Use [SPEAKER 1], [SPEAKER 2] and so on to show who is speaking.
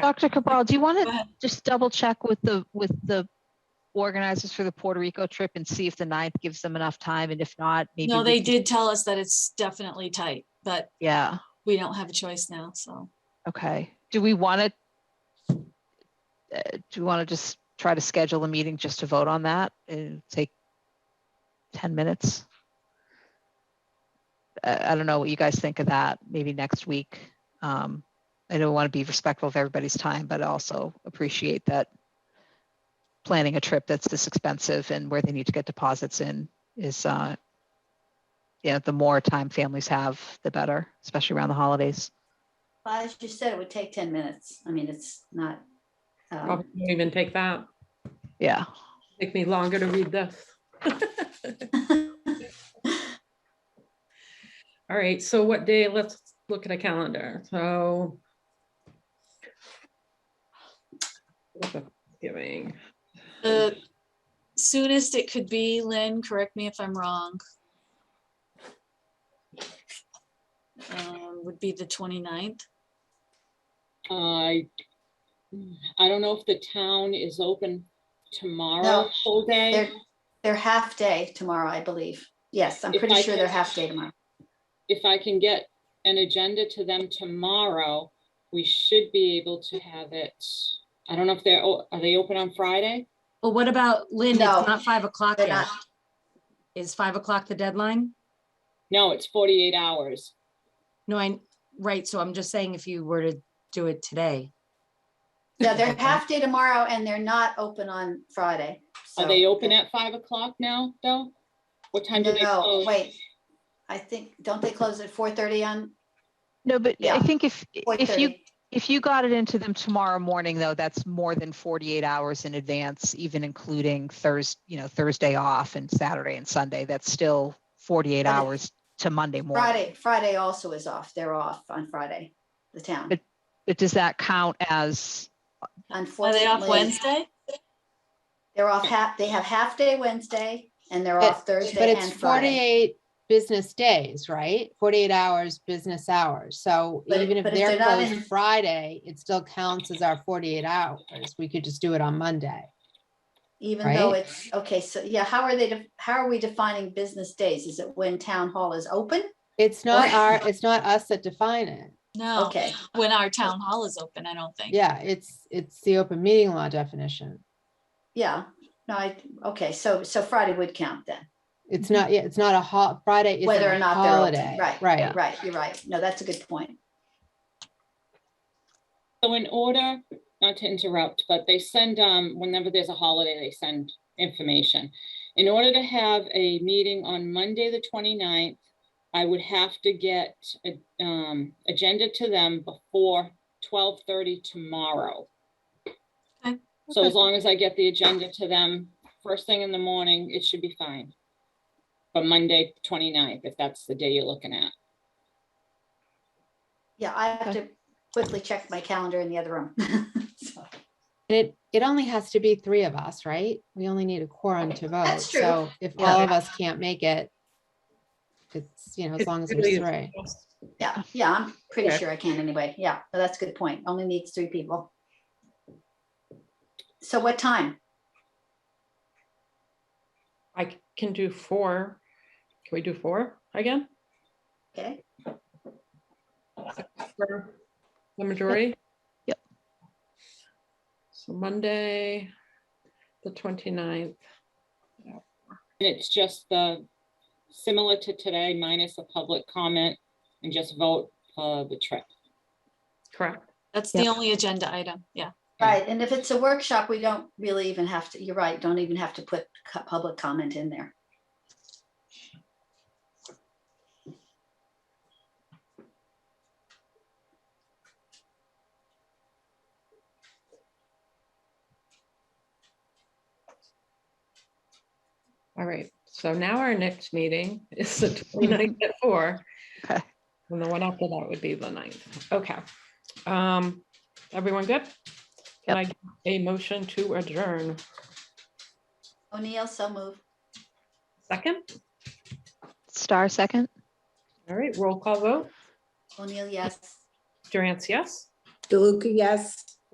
[SPEAKER 1] Dr. Cabral, do you want
[SPEAKER 2] Go
[SPEAKER 1] to
[SPEAKER 2] ahead.
[SPEAKER 1] just double check with the, with the organizers for the Puerto Rico trip and see if the ninth gives them enough time? And if not, maybe.
[SPEAKER 2] No,
[SPEAKER 1] we
[SPEAKER 2] they
[SPEAKER 1] can-
[SPEAKER 2] did tell us that it's definitely tight, but
[SPEAKER 1] Yeah,
[SPEAKER 2] we don't have a choice now, so.
[SPEAKER 1] okay. Do we want to? Do we want to just try to schedule a meeting just to vote on that and take 10 minutes? Uh, I don't know what you guys think of that, maybe next week. Um, I don't want to be respectful of everybody's time, but also appreciate that planning a trip that's this expensive and where they need to get deposits in is, uh, yeah, the more time families have, the better, especially around the holidays.
[SPEAKER 3] Well, as you said, it would take ten minutes. I mean, it's not. um,
[SPEAKER 4] Probably Oh, won't even take that.
[SPEAKER 1] Yeah.
[SPEAKER 4] Take me longer to read this. All right, so what day? Let's look at a calendar. So. Giving,
[SPEAKER 2] The soonest it could be, Lynn, correct me if I'm wrong. um, Would be the 29th.
[SPEAKER 5] I, I don't know if the town is open tomorrow
[SPEAKER 3] No,
[SPEAKER 5] full
[SPEAKER 3] They're,
[SPEAKER 5] day.
[SPEAKER 3] they're half day tomorrow, I believe. Yes, I'm
[SPEAKER 5] If
[SPEAKER 3] pretty
[SPEAKER 5] I
[SPEAKER 3] sure they're
[SPEAKER 5] can-
[SPEAKER 3] half day tomorrow.
[SPEAKER 5] If I can get an agenda to them tomorrow, we should be able to have it. I don't know if they're, o- are they open on Friday?
[SPEAKER 6] Well, what about Lynn? It's
[SPEAKER 3] No,
[SPEAKER 6] not five o'clock
[SPEAKER 3] They're
[SPEAKER 6] yet.
[SPEAKER 3] not,
[SPEAKER 6] Is five o'clock the deadline?
[SPEAKER 5] No, it's forty-eight hours.
[SPEAKER 6] No, I, right, so I'm just saying if you were to do it today.
[SPEAKER 3] no, they're half day tomorrow and they're not open on Friday.
[SPEAKER 5] Are
[SPEAKER 3] so-
[SPEAKER 5] they open at five o'clock now, though? What time do they
[SPEAKER 3] No,
[SPEAKER 5] close?
[SPEAKER 3] wait. I think, don't they close at four thirty on,
[SPEAKER 1] No, but I
[SPEAKER 3] Yeah.
[SPEAKER 1] think if,
[SPEAKER 3] four
[SPEAKER 1] if you,
[SPEAKER 3] thirty?
[SPEAKER 1] if you got it into them tomorrow morning, though, that's more than 48 hours in advance, even including Thursday, you know, Thursday off and Saturday and Sunday, that's still 48
[SPEAKER 3] But it-
[SPEAKER 1] hours to Monday morning.
[SPEAKER 3] Friday, Friday also is off. They're off on Friday, the town.
[SPEAKER 1] But- But does that count as,
[SPEAKER 2] Are they off
[SPEAKER 3] Unfortunately,
[SPEAKER 2] Wednesday?
[SPEAKER 3] they're off half, they have half day Wednesday and they're
[SPEAKER 7] But-
[SPEAKER 3] off Thursday
[SPEAKER 7] But it's
[SPEAKER 3] and Friday.
[SPEAKER 7] forty-eight business days, right? Forty-eight hours, business hours. So
[SPEAKER 3] But-
[SPEAKER 7] even if
[SPEAKER 3] but if
[SPEAKER 7] they're
[SPEAKER 3] they're not in-
[SPEAKER 7] closed Friday, it still counts as our forty-eight hours. We could just do it on Monday.
[SPEAKER 3] Even though
[SPEAKER 7] right?
[SPEAKER 3] it's, okay, so yeah, how are they, def- how are we defining business days? Is it when town hall is open?
[SPEAKER 7] It's not
[SPEAKER 3] Right.
[SPEAKER 7] our, it's not us that define it.
[SPEAKER 2] No.
[SPEAKER 3] Okay,
[SPEAKER 2] When our town hall is open, I don't think.
[SPEAKER 7] Yeah, it's, it's the open meeting law definition.
[SPEAKER 3] yeah, no, I, okay, so, so Friday would count then.
[SPEAKER 7] It's not, yeah, it's not a hol, Friday isn't
[SPEAKER 3] Mm-hmm. Whether or
[SPEAKER 7] a
[SPEAKER 3] not they're open,
[SPEAKER 7] holiday.
[SPEAKER 3] right,
[SPEAKER 7] Right.
[SPEAKER 3] Right, you're right. No, that's a good point.
[SPEAKER 5] So in order, not to interrupt, but they send, um, whenever there's a holiday, they send information. In order to have a meeting on Monday, the 29th, I would have to get a, um, agenda to them before twelve thirty tomorrow.
[SPEAKER 2] Okay.
[SPEAKER 5] So as
[SPEAKER 2] Okay.
[SPEAKER 5] long as I get the agenda to them first thing in the morning, it should be fine. But Monday, 29th, if that's the day you're looking at.
[SPEAKER 3] Yeah, I have
[SPEAKER 1] Okay.
[SPEAKER 3] to quickly check my calendar in the other room. So,
[SPEAKER 7] And it, it only has to be three of us, right? We only need a quorum to vote.
[SPEAKER 3] That's true.
[SPEAKER 7] So if
[SPEAKER 3] Yeah.
[SPEAKER 7] all of us can't make it, it's, you know, as
[SPEAKER 4] It
[SPEAKER 7] long as
[SPEAKER 4] really
[SPEAKER 7] there's
[SPEAKER 4] is.
[SPEAKER 7] three.
[SPEAKER 3] Yeah, yeah, I'm pretty
[SPEAKER 4] Okay.
[SPEAKER 3] sure I can anyway. Yeah, no, that's a good point. Only needs three people. So what time?
[SPEAKER 4] I can do four. Can we do four again?
[SPEAKER 3] Okay,
[SPEAKER 4] For The majority?
[SPEAKER 1] Yep.
[SPEAKER 4] So Monday, the 29th.
[SPEAKER 5] And it's just the, similar to today, minus a public comment and just vote for the trip.
[SPEAKER 4] correct?
[SPEAKER 2] That's the
[SPEAKER 1] Yep.
[SPEAKER 2] only agenda item. Yeah.
[SPEAKER 3] right, and if it's a workshop, we don't really even have to, you're right, don't even have to put cu- public comment in there.
[SPEAKER 4] All right, so now our next meeting is the 29th at four.
[SPEAKER 1] Okay.
[SPEAKER 4] And the one after that would be the 9th. Okay. Um, everyone good? Can I get a motion to adjourn?
[SPEAKER 3] O'Neill, so move.
[SPEAKER 4] Second?
[SPEAKER 1] star second?
[SPEAKER 4] All right, roll call vote.
[SPEAKER 3] O'Neill, yes.
[SPEAKER 4] Durance, yes?
[SPEAKER 8] DeLuca, yes.